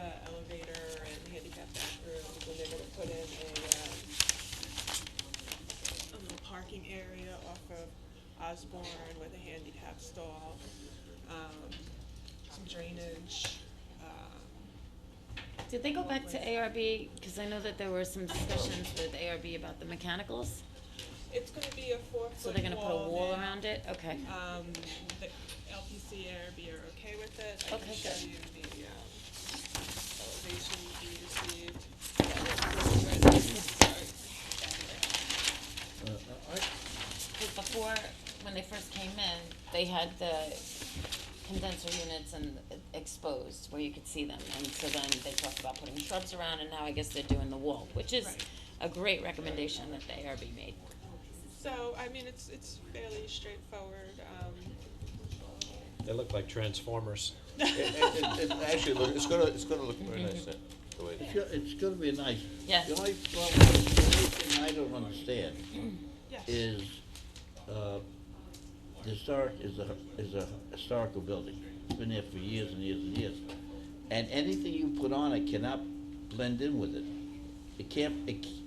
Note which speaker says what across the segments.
Speaker 1: the elevator and handicap bathrooms, and they're gonna put in a, um, a little parking area off of Osborne with a handicap stall, um, some drainage, um,
Speaker 2: Did they go back to ARB? Because I know that there were some discussions with ARB about the mechanicals,
Speaker 1: it's gonna be a four foot
Speaker 2: so they're gonna put a wall around it, okay.
Speaker 1: Um, the LPC ARB are okay with it. I can
Speaker 2: Okay,
Speaker 1: show
Speaker 2: good.
Speaker 1: you the, um, elevation we received. Yeah, this is- sorry.
Speaker 3: Uh, I,
Speaker 2: 'Cause before, when they first came in, they had the condenser units and exposed, where you could see them, and so then they talked about putting shrubs around, and now I guess they're doing the wall, which is
Speaker 1: Right.
Speaker 2: a great recommendation that the ARB made.
Speaker 1: So, I mean, it's, it's fairly straightforward, um,
Speaker 4: They look like transformers.
Speaker 5: It, it, it actually, look- it's gonna, it's gonna look very nice, uh, the way.
Speaker 3: it's, go- it's gonna be nice.
Speaker 2: Yeah.
Speaker 3: The only problem, the only thing I don't understand
Speaker 1: yes.
Speaker 3: is, uh, the historic is a, is a historical building. It's been there for years and years and years. And anything you put on it cannot blend in with it. It can't, it, c-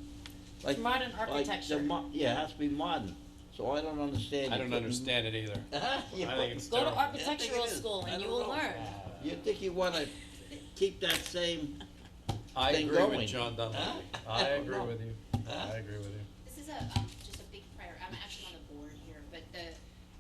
Speaker 3: like.
Speaker 2: modern
Speaker 3: like the
Speaker 2: architecture.
Speaker 3: mo- Yeah, it has to be modern, so I don't understand.
Speaker 4: I
Speaker 3: you
Speaker 4: don't
Speaker 3: putting-
Speaker 4: understand it either.
Speaker 3: You
Speaker 4: I
Speaker 3: put-
Speaker 4: think it's
Speaker 2: Go to
Speaker 4: terrible.
Speaker 2: architectural
Speaker 3: is.
Speaker 2: school
Speaker 3: I
Speaker 2: and you
Speaker 3: don't
Speaker 2: will
Speaker 3: know.
Speaker 2: learn.
Speaker 3: You think you wanna keep that same,
Speaker 4: I
Speaker 3: They're
Speaker 4: agree
Speaker 3: going.
Speaker 4: with John Dunlap.
Speaker 3: Huh?
Speaker 4: I
Speaker 3: don't
Speaker 4: agree
Speaker 3: know.
Speaker 4: with you.
Speaker 3: Huh?
Speaker 4: I agree with you.
Speaker 6: This is a, um, just a big prior, I'm actually on the board here, but the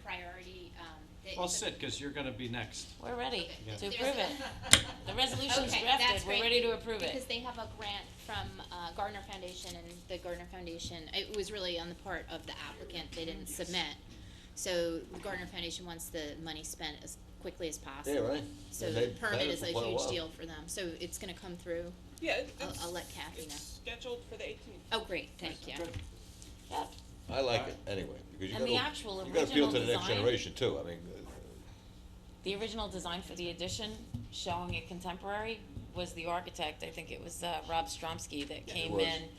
Speaker 6: priority, um, the.
Speaker 4: Well,
Speaker 6: it's a-
Speaker 4: sit, because you're gonna be next.
Speaker 2: We're ready
Speaker 6: Yeah.
Speaker 2: to
Speaker 6: There's
Speaker 2: approve
Speaker 6: a-
Speaker 2: it. The resolution's
Speaker 6: Okay,
Speaker 2: drafted,
Speaker 6: that's
Speaker 2: we're
Speaker 6: great,
Speaker 2: ready to approve
Speaker 6: Because
Speaker 2: it.
Speaker 6: they have a grant from, uh, Gardner Foundation and the Gardner Foundation, it was really on the part of the applicant, they didn't submit. So the Gardner Foundation wants the money spent as quickly as
Speaker 3: yeah,
Speaker 6: possible.
Speaker 3: right?
Speaker 6: So
Speaker 3: And
Speaker 6: the
Speaker 3: they've had
Speaker 6: permit
Speaker 3: it
Speaker 6: is
Speaker 3: for
Speaker 6: a
Speaker 3: quite
Speaker 6: huge
Speaker 3: while.
Speaker 6: deal for them, so it's gonna come through,
Speaker 1: Yeah, it-
Speaker 6: I'll-
Speaker 1: it's.
Speaker 6: I'll let Kathy
Speaker 1: it's
Speaker 6: know.
Speaker 1: Scheduled for the eighteenth.
Speaker 6: oh, great, thank you.
Speaker 2: Yep.
Speaker 5: I like it anyway, because you
Speaker 2: And
Speaker 5: gotta,
Speaker 2: the actual
Speaker 5: you gotta appeal to
Speaker 2: original
Speaker 5: the next
Speaker 2: design-
Speaker 5: generation too, I mean, uh,
Speaker 2: The original design for the addition, showing it contemporary, was the architect, I think it was, uh, Rob Stromsky that came
Speaker 5: was.
Speaker 2: in.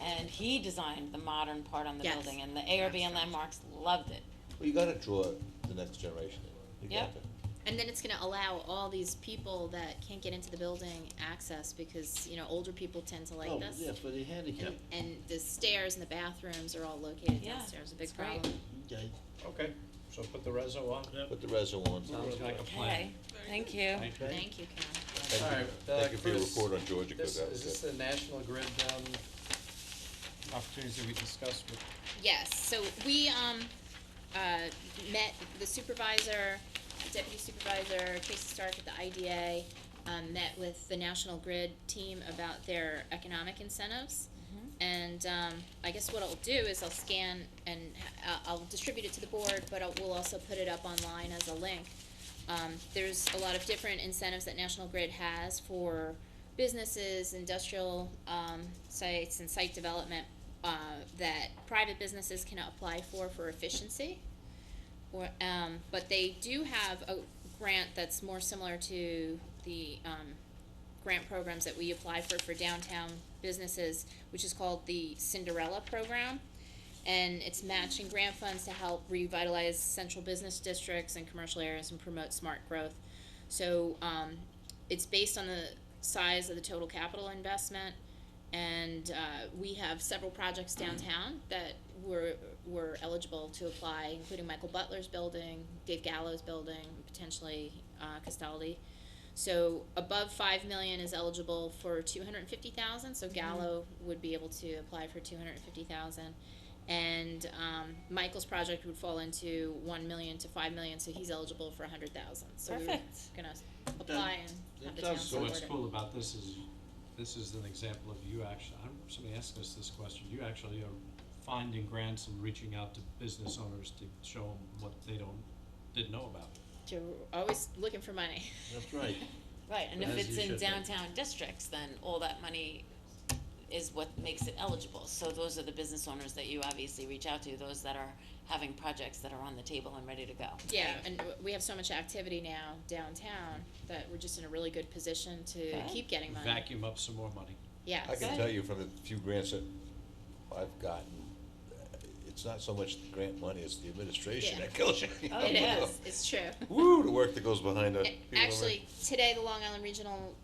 Speaker 2: And he designed the modern part on the
Speaker 6: Yes.
Speaker 2: building, and the ARB and Landmarks loved it.
Speaker 5: well, you gotta draw the next generation in. You
Speaker 2: Yep.
Speaker 5: gotta.
Speaker 6: And then it's gonna allow all these people that can't get into the building access because, you know, older people tend to like
Speaker 3: Oh,
Speaker 6: this.
Speaker 3: yeah, for the handicap,
Speaker 6: And, and the stairs and the bathrooms are all located
Speaker 2: Yeah,
Speaker 6: downstairs, a big
Speaker 2: it's great.
Speaker 6: problem.
Speaker 3: okay.
Speaker 4: Okay, so put the reso on.
Speaker 5: Put the reso on.
Speaker 4: Sounds like a
Speaker 2: Okay,
Speaker 4: plan.
Speaker 2: thank you.
Speaker 4: Thank you.
Speaker 6: Thank you, Karen.
Speaker 5: Thank you.
Speaker 4: Alright, uh,
Speaker 5: Thank you for your
Speaker 4: Chris,
Speaker 5: report on Georgia, because
Speaker 4: This,
Speaker 5: that
Speaker 4: is this
Speaker 5: was it.
Speaker 4: the National Grid, um, opportunities that we discussed with
Speaker 6: Yes, so we, um, uh, met the supervisor, deputy supervisor, Tracy Stark at the IDA, um, met with the National Grid team about their economic incentives. And, um, I guess what I'll do is I'll scan and, uh, I'll distribute it to the board, but I'll, we'll also put it up online as a link. Um, there's a lot of different incentives that National Grid has for businesses, industrial, um, sites and site development, uh, that private businesses can apply for, for efficiency. Or, um, but they do have a grant that's more similar to the, um, grant programs that we apply for, for downtown businesses, which is called the Cinderella Program. And it's matching grant funds to help revitalize central business districts and commercial areas and promote smart growth. So, um, it's based on the size of the total capital investment. And, uh, we have several projects downtown that were, were eligible to apply, including Michael Butler's building, Dave Gallo's building, potentially, uh, Castaldi. So above five million is eligible for two hundred and fifty thousand, so Gallo would be able to apply for two hundred and fifty thousand. And, um, Michael's project would fall into one million to five million, so he's eligible for a hundred thousand, so we're
Speaker 2: Perfect.
Speaker 6: gonna apply and
Speaker 3: that
Speaker 6: have the town
Speaker 3: sounds
Speaker 4: So
Speaker 6: support it.
Speaker 4: what's cool about this is, this is an example of you actually, I'm, somebody asked us this question, you actually are finding grants and reaching out to business owners to show them what they don't, didn't know about.
Speaker 6: You're always looking for money.
Speaker 3: That's right.
Speaker 2: Right, and if
Speaker 3: As
Speaker 2: it's
Speaker 3: you
Speaker 2: in
Speaker 3: should be.
Speaker 2: downtown districts, then all that money is what makes it eligible. So those are the business owners that you obviously reach out to, those that are having projects that are on the table and ready to go.
Speaker 6: Yeah, and w- we have so much activity now downtown that we're just in a really good position to
Speaker 2: Okay.
Speaker 6: keep getting money.
Speaker 4: Vacuum up some more money.
Speaker 6: Yes.
Speaker 5: I can
Speaker 2: Good.
Speaker 5: tell you from the few grants that I've gotten, uh, it's not so much the grant money, it's the administration
Speaker 6: Yeah.
Speaker 5: that kills you.
Speaker 2: Oh,
Speaker 6: It
Speaker 2: yeah.
Speaker 6: is, it's true.
Speaker 5: Woo, the work that goes behind that.
Speaker 6: A- Actually, today, the Long Island Regional